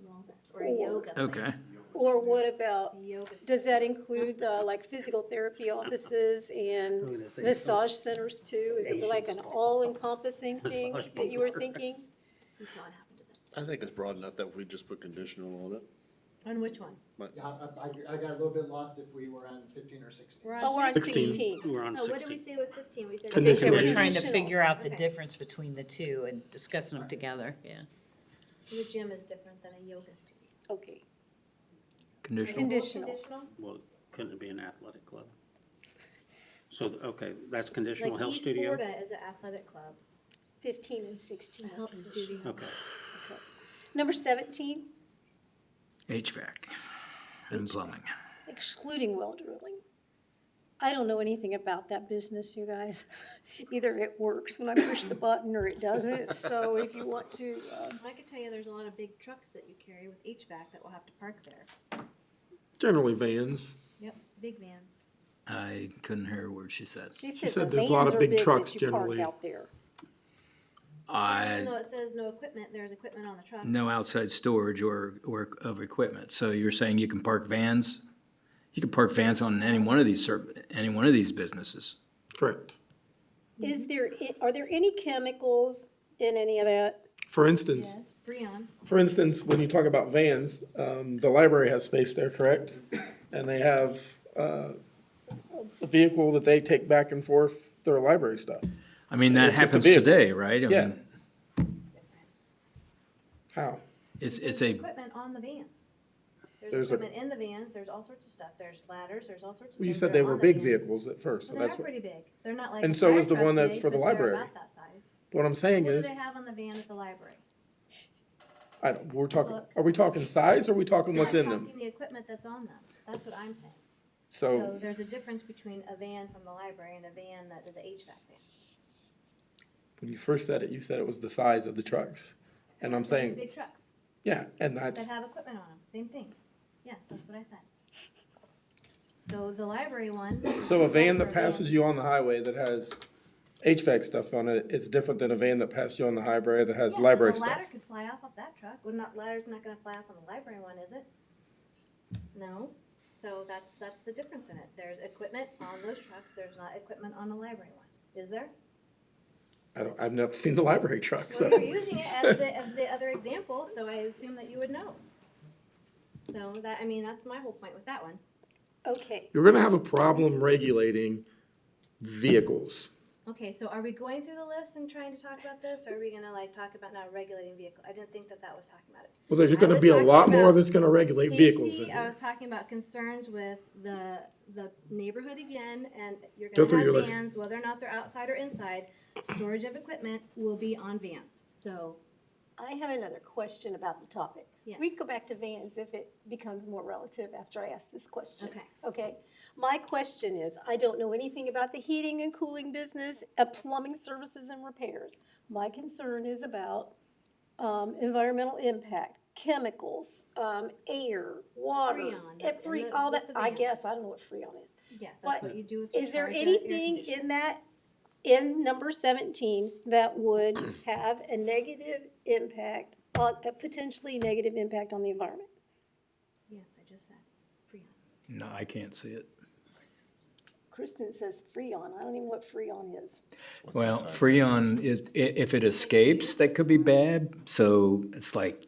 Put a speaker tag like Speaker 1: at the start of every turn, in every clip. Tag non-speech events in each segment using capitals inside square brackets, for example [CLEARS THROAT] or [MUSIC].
Speaker 1: wellness or a yoga place.
Speaker 2: Okay.
Speaker 3: Or what about,
Speaker 1: A yoga studio.
Speaker 3: does that include uh, like physical therapy offices and
Speaker 4: Oh,
Speaker 3: massage centers too? Is it like an all-encompassing thing
Speaker 4: Massage
Speaker 3: that you were thinking?
Speaker 1: Who's not happy to that?
Speaker 5: I think it's broad enough that we just put conditional on it.
Speaker 1: On which one?
Speaker 6: Yeah, I, I- I got a little bit lost if we were on fifteen or sixteen.
Speaker 3: [LAUGHS] Oh, we're on
Speaker 4: Sixteen.
Speaker 3: sixteen.
Speaker 4: We're on
Speaker 1: Oh, what did we
Speaker 4: sixteen.
Speaker 1: say with fifteen? We said.
Speaker 4: I
Speaker 7: I think they were
Speaker 4: Conditional.
Speaker 7: trying to
Speaker 3: Conditional.
Speaker 7: figure out the
Speaker 1: Okay.
Speaker 7: difference between the two and discussing them together, yeah.
Speaker 1: The gym is different than a yoga studio.
Speaker 3: Okay,
Speaker 2: Conditional.
Speaker 3: Conditional.
Speaker 4: Well, couldn't it be an athletic club? So, okay, that's
Speaker 1: Like
Speaker 4: conditional health
Speaker 1: East
Speaker 4: studio?
Speaker 1: Florida is an athletic club.
Speaker 3: fifteen and sixteen.
Speaker 1: A health studio.
Speaker 4: Okay,
Speaker 3: Number seventeen,
Speaker 2: HVAC and plumbing.
Speaker 3: excluding well drilling. I don't know anything about that business, you guys. [LAUGHS] Either it works when I push the button or it doesn't, so if you want to, uh,
Speaker 1: I could tell you there's a lot of big trucks that you carry with HVAC that will have to park there.
Speaker 8: Generally vans.
Speaker 1: Yep, big vans.
Speaker 2: I couldn't hear a word she said.
Speaker 3: she
Speaker 8: said
Speaker 3: said the
Speaker 8: there's a lot
Speaker 3: vans
Speaker 8: of
Speaker 3: are
Speaker 8: big
Speaker 3: big
Speaker 8: trucks
Speaker 3: that you park
Speaker 8: generally.
Speaker 3: out there.
Speaker 2: I,
Speaker 1: Even though it says no equipment, there's equipment on the trucks.
Speaker 2: no outside storage or, or of equipment. So you're saying you can park vans? You can park vans on any one of these, ser- any one of these businesses.
Speaker 8: Correct.
Speaker 3: Is there, i- are there any chemicals in any of that?
Speaker 8: For instance,
Speaker 1: Yes, Breon.
Speaker 8: for instance, when you talk about vans, um, the library has space there, correct? And they have, uh, a vehicle that they take back and forth their library stuff.
Speaker 2: I mean, that
Speaker 8: It's just a
Speaker 2: happens
Speaker 8: vehicle.
Speaker 2: today, right? I
Speaker 8: Yeah.
Speaker 2: mean,
Speaker 8: How?
Speaker 2: It's, it's a,
Speaker 1: Equipment on the vans. There's
Speaker 8: There's a-
Speaker 1: equipment in the vans, there's all sorts of stuff, there's ladders, there's all sorts of
Speaker 8: Well, you
Speaker 1: things.
Speaker 8: said
Speaker 1: that
Speaker 8: they
Speaker 1: are
Speaker 8: were
Speaker 1: on the
Speaker 8: big
Speaker 1: vans.
Speaker 8: vehicles at first, so
Speaker 1: Well, they
Speaker 8: that's
Speaker 1: are
Speaker 8: what,
Speaker 1: pretty big, they're not like.
Speaker 8: And
Speaker 1: a
Speaker 8: so
Speaker 1: fire
Speaker 8: is the
Speaker 1: truck
Speaker 8: one that's
Speaker 1: big,
Speaker 8: for the
Speaker 1: but they're
Speaker 8: library.
Speaker 1: about that size.
Speaker 8: what I'm
Speaker 1: What
Speaker 8: saying
Speaker 1: do
Speaker 8: is,
Speaker 1: they have on the van at the library?
Speaker 8: I don't, we're talking,
Speaker 1: Books.
Speaker 8: are we talking size or are we talking what's
Speaker 1: I'm
Speaker 8: in them?
Speaker 1: talking The equipment that's on them, that's what I'm saying. So
Speaker 8: So,
Speaker 1: there's a difference between a van from the library and a van that is a HVAC van.
Speaker 8: when you first said it, you said it was the size of the trucks. And I'm
Speaker 1: Those
Speaker 8: saying,
Speaker 1: Big trucks
Speaker 8: yeah, and that's,
Speaker 1: that have equipment on them, same thing. Yes, that's what I said. So the library one.
Speaker 8: So a
Speaker 1: is
Speaker 8: van
Speaker 1: over
Speaker 8: that passes you on the highway that has HVAC stuff on it, it's different than a van that passes you on the highway that
Speaker 1: Yeah,
Speaker 8: has
Speaker 1: 'cause
Speaker 8: library
Speaker 1: the
Speaker 8: stuff.
Speaker 1: ladder could fly off of that truck. Well, not, ladder's not gonna fly off on the library one, is it? No, so that's, that's the difference in it. There's equipment on those trucks, there's not equipment on the library one, is there?
Speaker 8: I don't, I've never seen the library truck, so.
Speaker 1: Well, you're using it as the, as the other example, so I assume that you would know. So that, I mean, that's my whole point with that one.
Speaker 3: Okay,
Speaker 8: [LAUGHS] You're gonna have a problem regulating vehicles.
Speaker 1: Okay, so are we going through the list and trying to talk about this, or are we gonna like talk about not regulating vehicle? I didn't think that that was talking about it.
Speaker 8: Well, there's
Speaker 1: I
Speaker 8: gonna
Speaker 1: was
Speaker 8: be a
Speaker 1: talking
Speaker 8: lot more
Speaker 1: about
Speaker 8: that's gonna regulate vehicles in
Speaker 1: Safety, I
Speaker 8: here.
Speaker 1: was talking about concerns with the, the neighborhood again, and you're
Speaker 8: Go through
Speaker 1: gonna
Speaker 8: your
Speaker 1: have
Speaker 8: list.
Speaker 1: vans, whether or not they're outside or inside. Storage of equipment will be on vans, so,
Speaker 3: I have another question about the topic.
Speaker 1: Yes.
Speaker 3: We can go back to vans if it becomes more relative after I ask this question.
Speaker 1: Okay.
Speaker 3: Okay, my question is, I don't know anything about the heating and cooling business, uh, plumbing services and repairs. My concern is about, um, environmental impact, chemicals, um, air, water.
Speaker 1: Freon, that's in
Speaker 3: every-
Speaker 1: the-
Speaker 3: all
Speaker 1: with
Speaker 3: that,
Speaker 1: the
Speaker 3: I
Speaker 1: van.
Speaker 3: guess, I don't know what Freon is.
Speaker 1: yes, that's
Speaker 3: What-
Speaker 1: what you do with your
Speaker 3: Is there
Speaker 1: charger, air
Speaker 3: anything
Speaker 1: conditioner.
Speaker 3: in that, in number seventeen, that
Speaker 2: [CLEARS THROAT]
Speaker 3: would have a negative impact, on a potentially negative impact on the environment?
Speaker 1: Yes, I just said, Freon.
Speaker 2: no, I can't see it.
Speaker 3: Kristen says Freon, I don't even know what Freon is.
Speaker 2: Well, Freon, is- i- if it escapes, that could be bad. So it's like,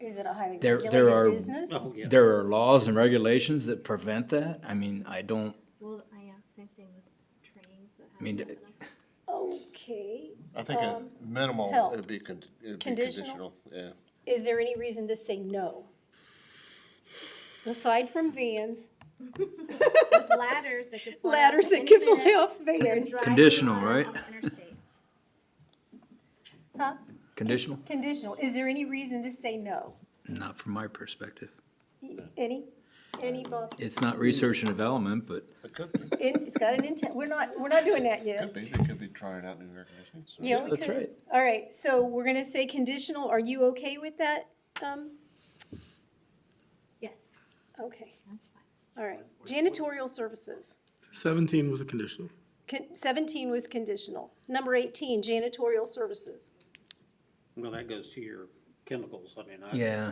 Speaker 3: Is it a highly
Speaker 2: There- there are-
Speaker 3: regulated business?
Speaker 4: oh, yeah.
Speaker 2: there are laws and regulations that prevent that. I mean, I don't,
Speaker 1: Well, I, yeah, same thing with trains that have.
Speaker 2: I mean,
Speaker 1: stuff in
Speaker 2: d-
Speaker 1: them.
Speaker 3: Okay,
Speaker 5: I think at
Speaker 3: Um,
Speaker 5: minimum,
Speaker 3: help.
Speaker 5: it'd be con- it'd be
Speaker 3: Conditional?
Speaker 5: conditional, yeah.
Speaker 3: is there any reason to say no? Aside from vans,
Speaker 1: With ladders that could
Speaker 3: [LAUGHS]
Speaker 1: fly. off
Speaker 3: ladders
Speaker 1: at
Speaker 3: that
Speaker 1: any
Speaker 3: could fly
Speaker 1: minute
Speaker 3: off
Speaker 1: when you're
Speaker 3: vans,
Speaker 1: driving
Speaker 2: Conditional,
Speaker 1: on-
Speaker 2: right?
Speaker 1: on the interstate.
Speaker 3: huh?
Speaker 2: conditional,
Speaker 3: Conditional, is there any reason to say no?
Speaker 2: not from my perspective.
Speaker 3: Any, any, Bob?
Speaker 2: It's not research and development, but
Speaker 5: It could be,
Speaker 3: In- It's got an intent, we're not, we're not doing that yet.
Speaker 5: could be, they could be trying out new air conditioning. so-
Speaker 3: Yeah, we
Speaker 2: That's
Speaker 3: could.
Speaker 2: right.
Speaker 3: All right, so we're gonna say conditional, are you okay with that? Um,
Speaker 1: Yes,
Speaker 3: okay,
Speaker 1: that's fine.
Speaker 3: all right. Janitorial services,
Speaker 8: Seventeen was a conditional.
Speaker 3: Con- seventeen was conditional. Number eighteen, janitorial services.
Speaker 4: Well, that goes to your chemicals, I mean, I.
Speaker 2: yeah.